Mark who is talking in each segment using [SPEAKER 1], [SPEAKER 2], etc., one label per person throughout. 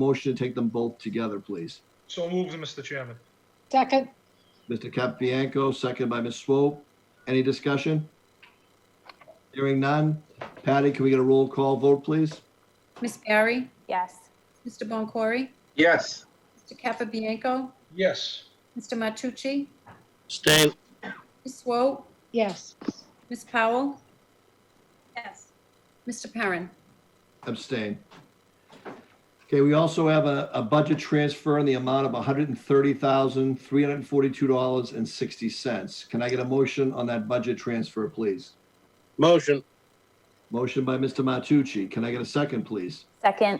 [SPEAKER 1] Motion to take them both together, please.
[SPEAKER 2] So moved, Mr. Chairman.
[SPEAKER 3] Second,
[SPEAKER 1] Mr. Capabianco, second by Ms. Swope. Any discussion? Hearing none. Patty, can we get a roll call vote, please?
[SPEAKER 4] Miss Barry?
[SPEAKER 3] yes.
[SPEAKER 4] Mr. Boncory?
[SPEAKER 5] Yes,
[SPEAKER 4] Mr. Capabianco?
[SPEAKER 2] Yes,
[SPEAKER 4] Mr. Matucci?
[SPEAKER 6] Abstain,
[SPEAKER 4] Ms. Swope?
[SPEAKER 3] Yes.
[SPEAKER 4] Ms. Powell? Yes. Mr. Perrin?
[SPEAKER 1] Abstain. Okay, we also have a, a budget transfer in the amount of $130,342.60. Can I get a motion on that budget transfer, please?
[SPEAKER 6] motion,
[SPEAKER 1] Motion by Mr. Matucci. Can I get a second, please?
[SPEAKER 3] Second,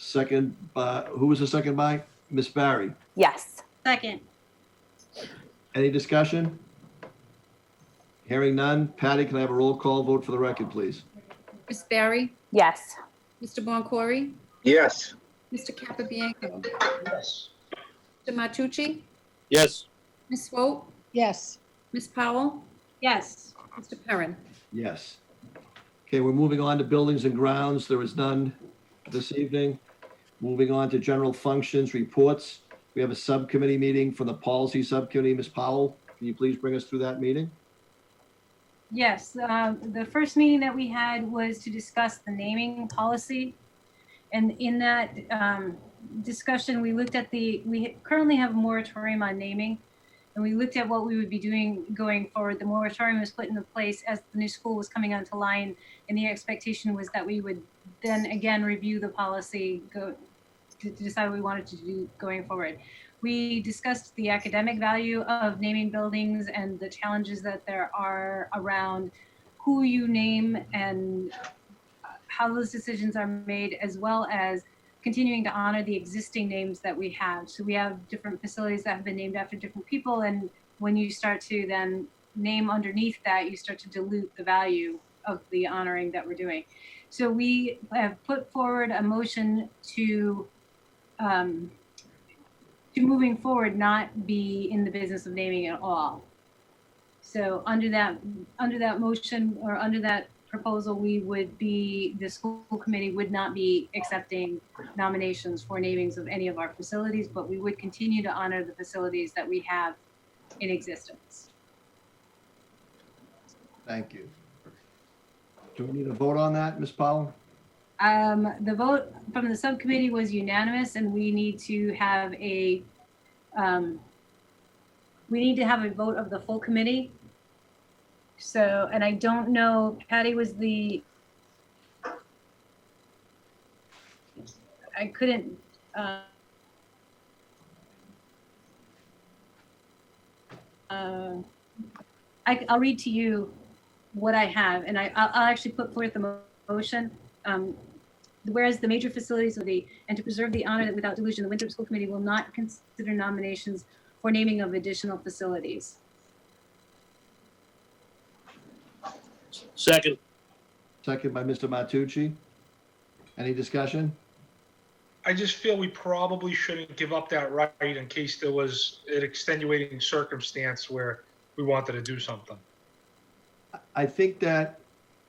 [SPEAKER 1] Second, by who was the second by? Ms. Barry.
[SPEAKER 3] yes.
[SPEAKER 4] Second.
[SPEAKER 1] Any discussion? Hearing none. Patty, can I have a roll call vote for the record, please?
[SPEAKER 4] Miss Barry?
[SPEAKER 3] Yes.
[SPEAKER 4] Mr. Boncory?
[SPEAKER 5] yes,
[SPEAKER 4] Mr. Capabianco?
[SPEAKER 2] yes,
[SPEAKER 4] Mr. Matucci?
[SPEAKER 6] yes,
[SPEAKER 4] Ms. Swope?
[SPEAKER 3] Yes.
[SPEAKER 4] Ms. Powell? Yes. Mr. Perrin?
[SPEAKER 1] Yes. Okay, we're moving on to buildings and grounds. There is none this evening. Moving on to general functions, reports. We have a subcommittee meeting from the policy subcommittee. Ms. Powell, can you please bring us through that meeting?
[SPEAKER 7] Yes, um, the first meeting that we had was to discuss the naming policy. And in that um, discussion, we looked at the, we currently have a moratorium on naming. And we looked at what we would be doing going forward. The moratorium was put into place as the new school was coming onto line. And the expectation was that we would then again review the policy, go, to to decide what we wanted to do going forward. We discussed the academic value of naming buildings and the challenges that there are around who you name and how those decisions are made, as well as continuing to honor the existing names that we have. So we have different facilities that have been named after different people, and when you start to then name underneath that, you start to dilute the value of the honoring that we're doing. So we have put forward a motion to um, to moving forward not be in the business of naming at all. So under that, under that motion or under that proposal, we would be, the school committee would not be accepting nominations for namings of any of our facilities, but we would continue to honor the facilities that we have in existence.
[SPEAKER 1] Thank you. Do we need a vote on that, Ms. Powell?
[SPEAKER 7] Um, the vote from the subcommittee was unanimous and we need to have a, um, we need to have a vote of the full committee. So, and I don't know, Patty was the, I couldn't, uh, uh, I, I'll read to you what I have and I, I'll, I'll actually put forth the mo- motion um, whereas the major facilities of the, and to preserve the honor that without dilution, the Winthrop School Committee will not consider nominations for naming of additional facilities.
[SPEAKER 6] second,
[SPEAKER 1] Second by Mr. Matucci. Any discussion?
[SPEAKER 2] I just feel we probably shouldn't give up that right in case there was an extenuating circumstance where we wanted to do something.
[SPEAKER 1] I think that,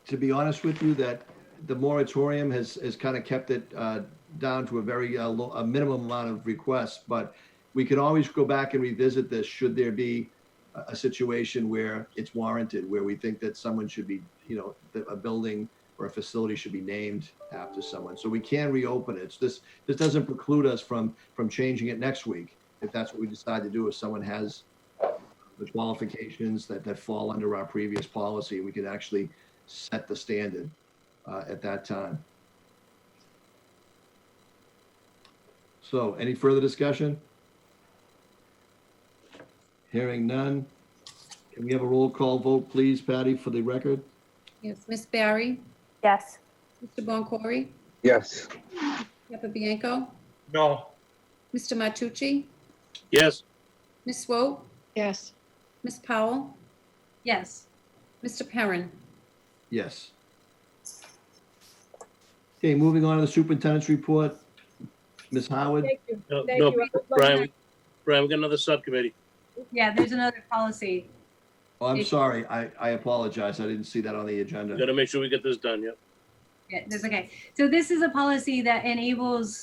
[SPEAKER 1] to be honest with you, that the moratorium has, has kind of kept it uh, down to a very, uh, low, a minimum amount of requests, but we can always go back and revisit this should there be a, a situation where it's warranted, where we think that someone should be, you know, that a building or a facility should be named after someone. So we can reopen it. So this, this doesn't preclude us from, from changing it next week, if that's what we decide to do, if someone has the qualifications that, that fall under our previous policy, we could actually set the standard uh, at that time. So any further discussion? Hearing none. Can we have a roll call vote, please, Patty, for the record?
[SPEAKER 4] Yes. Miss Barry?
[SPEAKER 3] Yes.
[SPEAKER 4] Mr. Boncory?
[SPEAKER 5] yes,
[SPEAKER 4] Capabianco?
[SPEAKER 2] No,
[SPEAKER 4] Mr. Matucci?
[SPEAKER 6] yes,
[SPEAKER 4] Ms. Swope?
[SPEAKER 3] Yes.
[SPEAKER 4] Ms. Powell?
[SPEAKER 7] Yes,
[SPEAKER 4] Mr. Perrin?
[SPEAKER 1] Yes. Okay, moving on to the superintendent's report. Ms. Howard?
[SPEAKER 8] Thank you,
[SPEAKER 6] no,
[SPEAKER 8] thank
[SPEAKER 6] no,
[SPEAKER 8] you. I would like
[SPEAKER 6] Brian,
[SPEAKER 8] to-
[SPEAKER 6] we- Brian, we got another subcommittee.
[SPEAKER 7] yeah, there's another policy.
[SPEAKER 1] Oh, I'm
[SPEAKER 7] Thank-
[SPEAKER 1] sorry. I, I apologize. I didn't see that on the agenda.
[SPEAKER 6] Got to make sure we get this done, yeah.
[SPEAKER 7] Yeah, that's okay. So this is a policy that enables